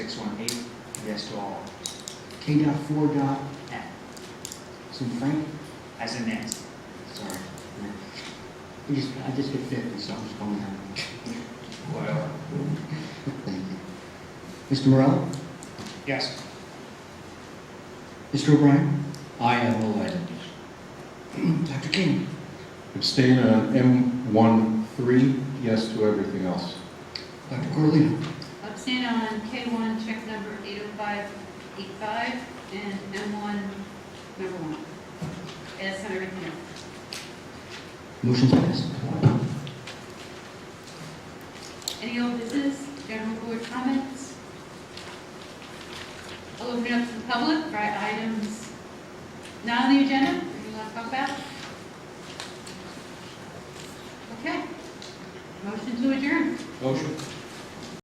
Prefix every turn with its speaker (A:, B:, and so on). A: to all,
B: K dot four dot,
A: N,
B: so Frank,
A: as in Nancy.
B: sorry. I just, I just hit fifty, so I'm just going down.
A: Whatever.
B: Thank you. Mr. Morel?
A: Yes.
B: Mr. O'Brien?
C: I am elected.
B: Dr. King?
D: Abstain on M13, yes to everything else.
B: Dr. Corlino?
E: Abstain on K1, check number 80585, and M1, number one. As under review.
B: Motion's passed.
E: Any old business, general board comments? I'll open it up to the public for items not on the agenda, that you want to talk about. Okay. Motion to adjourn.
C: Motion?